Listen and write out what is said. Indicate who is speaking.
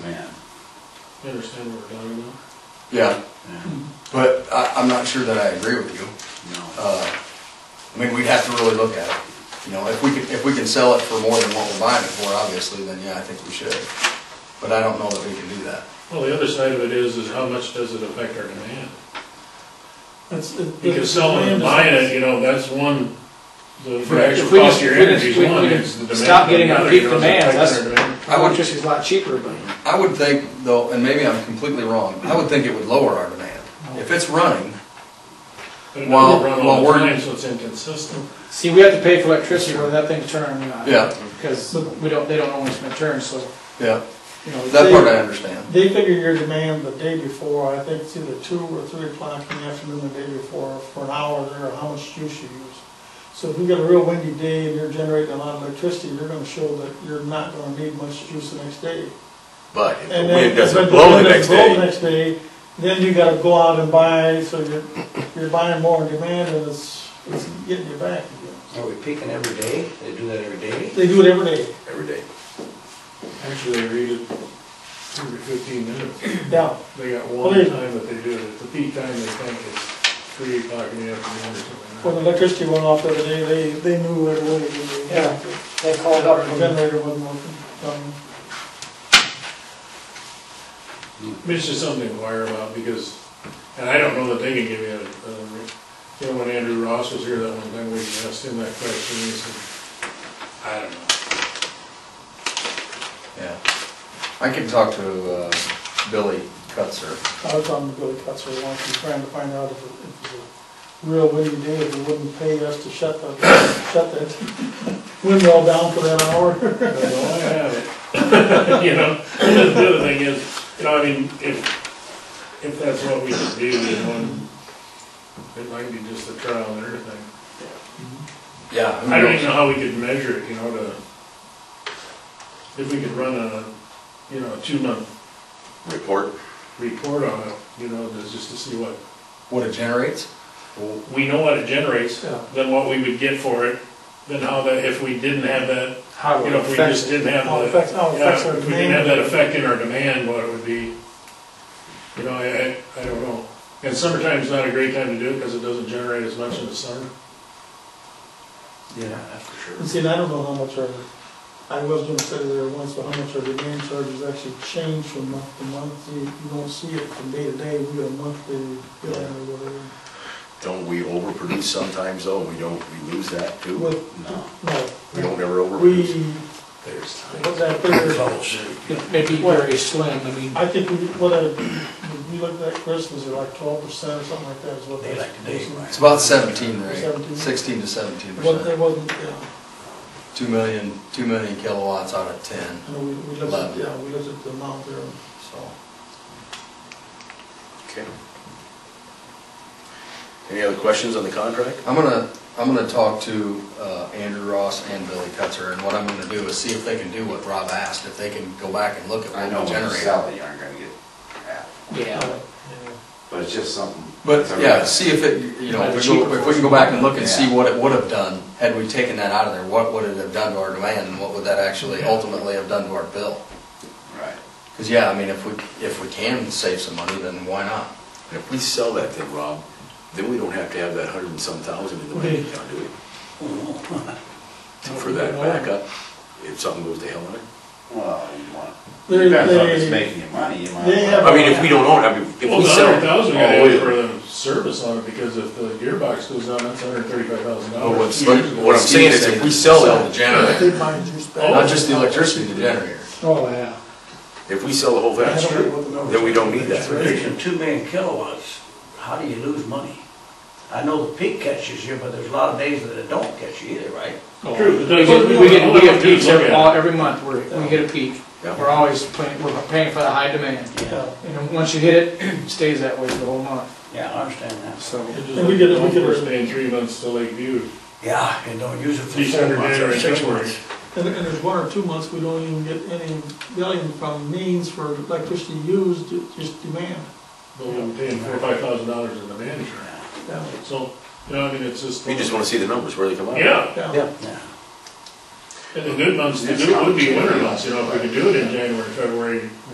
Speaker 1: I understand what we're talking about.
Speaker 2: Yeah,
Speaker 3: Yeah,
Speaker 2: but I, I'm not sure that I agree with you.
Speaker 3: No,
Speaker 2: Uh, I mean, we'd have to really look at it. You know, if we can, if we can sell it for more than what we're buying it for, obviously, then yeah, I think we should. But I don't know that we can do that.
Speaker 1: Well, the other side of it is, is how much does it affect our demand?
Speaker 4: That's.
Speaker 1: Because selling and buying it, you know, that's one, the
Speaker 4: If
Speaker 1: the
Speaker 4: we
Speaker 1: actual
Speaker 4: just-
Speaker 1: cost of your
Speaker 4: we just-
Speaker 1: energy is
Speaker 4: we-
Speaker 1: one,
Speaker 4: we
Speaker 1: it's the demand.
Speaker 4: stop getting
Speaker 1: of
Speaker 4: on
Speaker 1: another,
Speaker 4: peak
Speaker 1: you know, it's
Speaker 4: demand,
Speaker 1: affecting
Speaker 4: that's-
Speaker 1: our demand.
Speaker 2: I would-
Speaker 4: Electricity's a lot cheaper, but
Speaker 2: I would think, though, and maybe I'm completely wrong, I would think it would lower our demand. If it's running,
Speaker 1: But it
Speaker 2: While-
Speaker 1: don't run
Speaker 2: while
Speaker 1: all the
Speaker 2: we're-
Speaker 1: time, so it's inconsistent.
Speaker 4: see, we have to pay for electricity whether that thing's turning or not.
Speaker 2: Yeah.
Speaker 4: Because we don't, they don't own it's been turned, so,
Speaker 2: yeah,
Speaker 4: you know.
Speaker 2: that part I understand.
Speaker 5: They figure your demand the day before, I think it's either two or three o'clock in the afternoon the day before, for an hour there, how much juice you use. So if you get a real windy day and you're generating a lot of electricity, you're gonna show that you're not gonna need much juice the next day.
Speaker 6: But if
Speaker 5: And
Speaker 6: the
Speaker 5: then
Speaker 6: wind doesn't
Speaker 5: but
Speaker 6: blow
Speaker 5: wind
Speaker 6: the next
Speaker 5: doesn't blow the
Speaker 6: day,
Speaker 5: next day, then you gotta go out and buy, so you're, you're buying more in demand and it's, it's getting you back again.
Speaker 7: Are we peaking every day? They do that every day?
Speaker 5: They do it every day,
Speaker 6: every day.
Speaker 1: Actually, I read it every fifteen minutes.
Speaker 5: yeah.
Speaker 1: They got
Speaker 5: Well,
Speaker 1: one
Speaker 5: they-
Speaker 1: time that they do it, at the peak time, they think it's three o'clock in the afternoon or
Speaker 5: When
Speaker 1: something.
Speaker 5: the electricity went off the other day, they, they knew right away. that they-
Speaker 7: Yeah. They called up
Speaker 5: Our
Speaker 7: from,
Speaker 5: generator wasn't working. Um,
Speaker 1: I mean, It's just something to inquire about, because, and I don't know that they can give you a, a re- you know, when Andrew Ross was here that one time, we asked him that question, and he said, I don't know.
Speaker 2: Yeah. I can talk to, uh, Billy Cutzer.
Speaker 5: I was on the Billy Cutzer once, and trying to find out if it if it was a real windy day, if it wouldn't pay us to shut the, shut that windmill down for that hour.
Speaker 1: Well, I have it. You know, and then the other thing is, you know, I mean, if, if that's what we should do, you know, and it might be just a trial and error thing.
Speaker 2: Yeah. who
Speaker 1: I don't
Speaker 2: knows?
Speaker 1: even know how we could measure it, you know, to, if we could run a, you know, a two-month
Speaker 6: Report.
Speaker 1: report on it, you know, to- just to see what,
Speaker 2: What it generates?
Speaker 1: we know what it generates,
Speaker 5: Yeah.
Speaker 1: then what we would get for it, then how that, if we didn't have that,
Speaker 4: How
Speaker 1: you
Speaker 4: it
Speaker 1: know, if we
Speaker 4: affects
Speaker 1: just
Speaker 4: it.
Speaker 1: didn't have
Speaker 5: How it
Speaker 1: the,
Speaker 5: affects, how it affects
Speaker 1: Yeah,
Speaker 5: our
Speaker 1: if we didn't have that
Speaker 5: demand.
Speaker 1: effect in our demand, what it would be, you know, I, I- I don't know. And summertime's not a great time to do it because it doesn't generate as much in the summer.
Speaker 2: Yeah.
Speaker 3: that's for sure.
Speaker 5: And see, and I don't know how much our, I was gonna say there once, but how much our demand charges actually change from month to month. You, you don't see it from day to day, we get a monthly billing or whatever.
Speaker 6: Don't we overproduce sometimes though? We don't, we lose that too?
Speaker 5: Well-
Speaker 6: No, we
Speaker 5: No,
Speaker 6: don't ever
Speaker 5: we,
Speaker 6: overproduce.
Speaker 3: There's time.
Speaker 5: what's that figure?
Speaker 4: Maybe very slim, I mean,
Speaker 5: I think we, what I, we looked at Christmas, or like twelve percent or something like that is what.
Speaker 7: They like to dig, right?
Speaker 2: It's about seventeen, right?
Speaker 5: Seventeen.
Speaker 2: Sixteen to seventeen
Speaker 5: What,
Speaker 2: percent.
Speaker 5: it wasn't, yeah,
Speaker 2: Two million, two million kilowatts out of ten,
Speaker 5: I know, we, we looked at, yeah, we looked at the amount there.
Speaker 2: so.
Speaker 6: Okay. Any other questions on the contract?
Speaker 2: I'm gonna, I'm gonna talk to uh, Andrew Ross and Billy Cutzer, and what I'm gonna do is see if they can do what Rob asked, if they can go back and look at
Speaker 8: I know
Speaker 2: what we
Speaker 8: when you
Speaker 2: generate.
Speaker 8: sell it, you aren't gonna get half,
Speaker 4: yeah.
Speaker 8: but it's just something.
Speaker 2: But,
Speaker 8: it's a-
Speaker 2: yeah, see if it, you know, if we go- if we can go back and look and see what it would have done, had we taken that out of there, what would it have done to our demand, and what would that actually ultimately have done to our bill?
Speaker 8: Right.
Speaker 2: Because, yeah, I mean, if we, if we can save some money, then why not?
Speaker 6: And if we sell that then, Rob, then we don't have to have that hundred and some thousand in the bank account, do we? For that backup, if something goes to hell in it.
Speaker 8: Well, you want,
Speaker 5: They-
Speaker 8: depends on
Speaker 5: they-
Speaker 8: it's making you money, you might.
Speaker 5: they
Speaker 8: as
Speaker 5: have-
Speaker 8: well-
Speaker 6: I mean, if we don't own, it, I mean, if
Speaker 1: Well,
Speaker 6: we
Speaker 1: the
Speaker 6: sell.
Speaker 1: hundred thousand we gotta
Speaker 6: Oh, wait a
Speaker 1: have
Speaker 6: minute.
Speaker 1: for the service on it because if the gearbox goes down, that's hundred thirty-five thousand
Speaker 6: Well, what's-
Speaker 1: dollars.
Speaker 6: Oh, What I'm saying is if we sell
Speaker 2: the
Speaker 6: that,
Speaker 2: generator,
Speaker 5: They buy juice back.
Speaker 2: not just the electricity, the generator.
Speaker 4: Oh, yeah.
Speaker 6: if we sell the whole
Speaker 5: I don't
Speaker 6: thing,
Speaker 5: know what the numbers
Speaker 6: then we
Speaker 5: are.
Speaker 6: don't need that.
Speaker 7: producing two million kilowatts, how do you lose money? I know the peak catches you, but there's a lot of days that it don't catch you either, right?
Speaker 1: True, but
Speaker 4: We
Speaker 1: that's-
Speaker 4: get, we get, we
Speaker 1: Look
Speaker 4: get
Speaker 1: at it,
Speaker 4: peaks every,
Speaker 1: look at it.
Speaker 4: all- every month, we're, we get a peak.
Speaker 6: Yeah.
Speaker 4: We're always paying, we're paying for the high demand.
Speaker 7: Yeah.
Speaker 4: And then once you hit it, it stays that way for the whole month,
Speaker 7: Yeah, I understand that.
Speaker 4: so.
Speaker 1: And
Speaker 5: And
Speaker 1: we
Speaker 5: we get
Speaker 1: get,
Speaker 5: it- we
Speaker 1: we
Speaker 5: get it-
Speaker 1: staying three months to Lakeview,
Speaker 7: Yeah, and don't use it for four
Speaker 1: December,
Speaker 7: months or
Speaker 1: January,
Speaker 7: six
Speaker 1: February.
Speaker 7: months.
Speaker 5: And, and there's one or two months, we don't even get any billing from means for electricity used, it's just demand.
Speaker 1: But we're paying four, or five thousand dollars in the manager.
Speaker 5: Yeah.
Speaker 1: So, you know, I mean, it's just.
Speaker 6: We just wanna see the numbers, where they come out.
Speaker 1: Yeah,
Speaker 5: Yeah.
Speaker 7: Yeah.
Speaker 1: and the good months, the good would be winter months, you know, if we could do it in January, February,